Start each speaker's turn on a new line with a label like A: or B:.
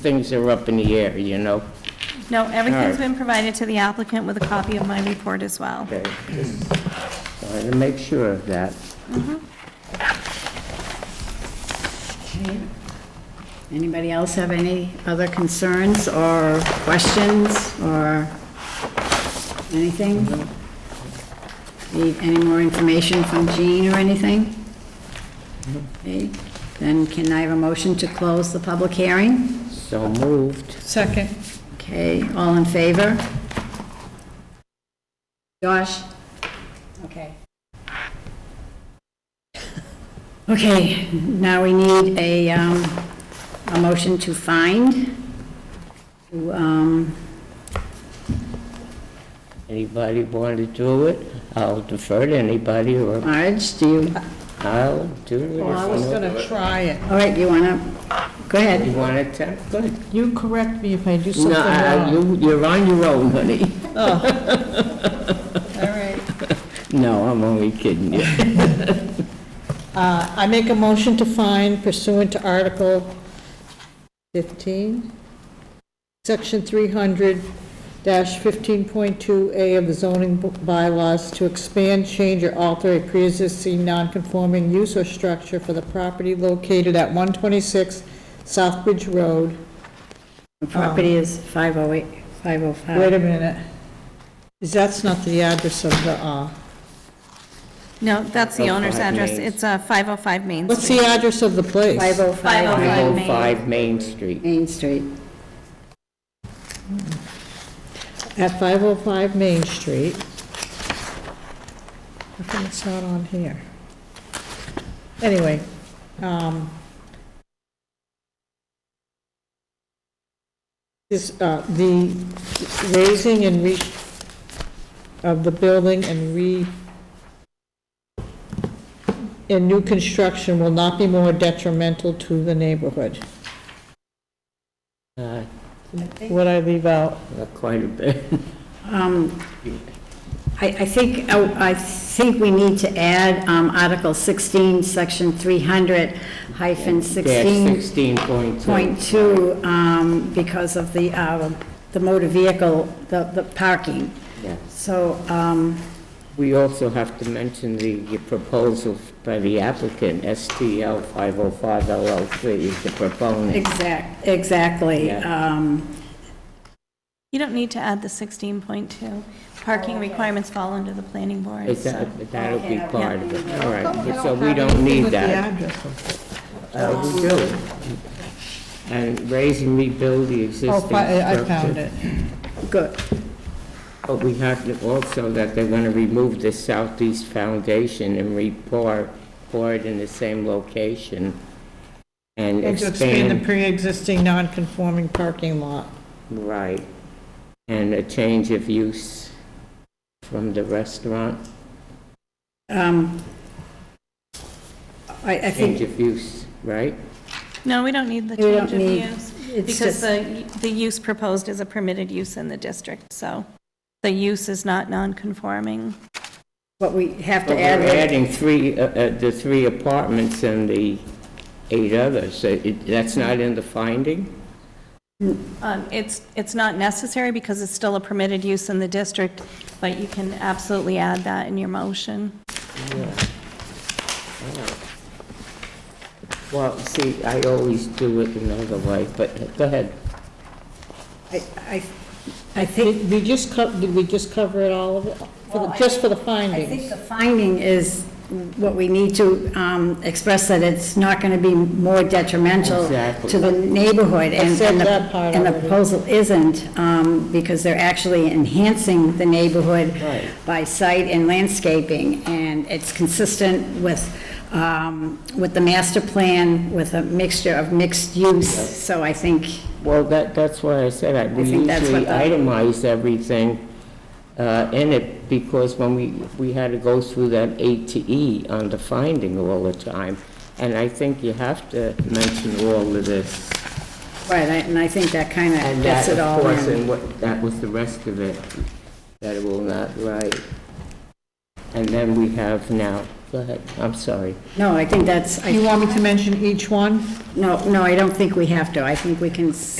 A: things are up in the air, you know?
B: No, everything's
A: Alright.
B: been provided to the applicant with a copy of my report as well.
A: Okay, just wanted to make sure of that.
C: Anybody else have any other concerns or questions or anything? Need any more information from Jean or anything? Okay, Then can I have a motion to close the public hearing?
A: So moved.
D: Second.
C: Okay, all in favor? Josh? Okay. Okay, now we need a, um, a motion to find. To, um,
A: Anybody want to do it? I'll defer to anybody, or
C: Marge, do you,
A: I'll do it.
D: Well, I was
A: if
D: gonna try it.
C: all right, you wanna, go
A: You
D: Um,
C: ahead.
A: want to attempt, good.
D: You correct me if I do something
A: No, I-
D: wrong.
A: you, you're on your own, honey.
D: All right.
A: No, I'm only kidding you.
D: Uh, I make a motion to find pursuant to Article 15, Section 300-15.2A of the zoning b- bylaws to expand, change, or alter a pre-existing non-conforming use or structure for the property located at 126 Southbridge Road.
C: The Property is 508,
D: Wait
C: 505.
D: a minute. Is That's not the address of the, uh,
B: No, that's the owner's
A: 505
B: address.
A: Oh, Main.
B: It's uh, 505 Main
D: what's
B: Street.
D: the address of the place?
C: 505
A: 505 Main Street.
C: Main Street.
D: at 505 Main Street. How come it's not on here? Anyway, um, this, uh, the raising and re, of the building and re, and new construction will not be more detrimental to the neighborhood.
A: Uh,
D: What I leave out?
A: not Quite a bit.
C: Um, I, I think, oh, I I think we need to add um, Article 16, Section 300 hyphen
A: Dash
C: 16.2,
A: 16.2.
C: um, because of the, uh, the motor vehicle, the, the parking.
A: Yeah.
C: So, um,
A: We also have to mention the proposal by the applicant, STL 505 LLC is the proponent.
C: exact, exactly.
A: Yeah.
C: um,
B: You don't need to add the 16.2. Parking requirements fall under the planning board,
A: Is
B: so.
A: that- That'll be
C: Okay.
A: part of it, all right, so we don't need that. Uh, We do. And raise and rebuild the existing
D: Oh, fi- I
A: structure.
D: I found it.
C: Good.
A: But we have to also that they're going to remove the southeast foundation and re-pour, pour it in the same location and
D: And to expand the
A: expand,
D: pre-existing non-conforming parking lot.
A: right, and a change of use from the restaurant,
C: Um, I, I
A: change
C: think
A: of use, right?
B: No, we don't need the
C: We don't
B: change of
C: need-
B: use.
C: it's
B: Because the,
C: just-
B: the use proposed is a permitted use in the district, so the use is not non-conforming.
C: what we have
A: But
C: to
A: we're
C: add.
A: adding three, uh, uh, the three apartments and the eight others, so it- that's not in the finding?
B: Um, It's, it's not necessary because it's still a permitted use in the district, but you can absolutely add that in your motion.
A: Well, see, I always do it another way, but go ahead.
C: I, I I think
D: Did we just co, did we just cover it all, of it? For
C: Well,
D: the-
C: I-
D: just for the
C: I think
D: findings?
C: the finding is what we need to um, express, that it's not going to be more detrimental
A: Exactly.
C: to the neighborhood. and-
D: Except
C: and the-
D: that part
C: And the
D: already.
C: proposal isn't, um, because they're actually enhancing the neighborhood
A: Right.
C: by site and landscaping, and it's consistent with, um, with the master plan, with a mixture of mixed use, so I think,
A: Well, that, that's why I said I, we
C: think that's
A: usually
C: what the-
A: itemize everything uh, in it, because when we, we had to go through that A to E on the finding all the time, and I think you have to mention all of this.
C: right, I- and I think that kind of
A: And
C: gets
A: that,
C: it
A: of
C: all
A: course,
C: in.
A: and what, that was the rest of it, that it will not, right. And then we have now, go ahead, I'm sorry.
C: No, I think that's, I
D: You want me to mention each one?
C: No, no, I don't think we have to. I think we can s-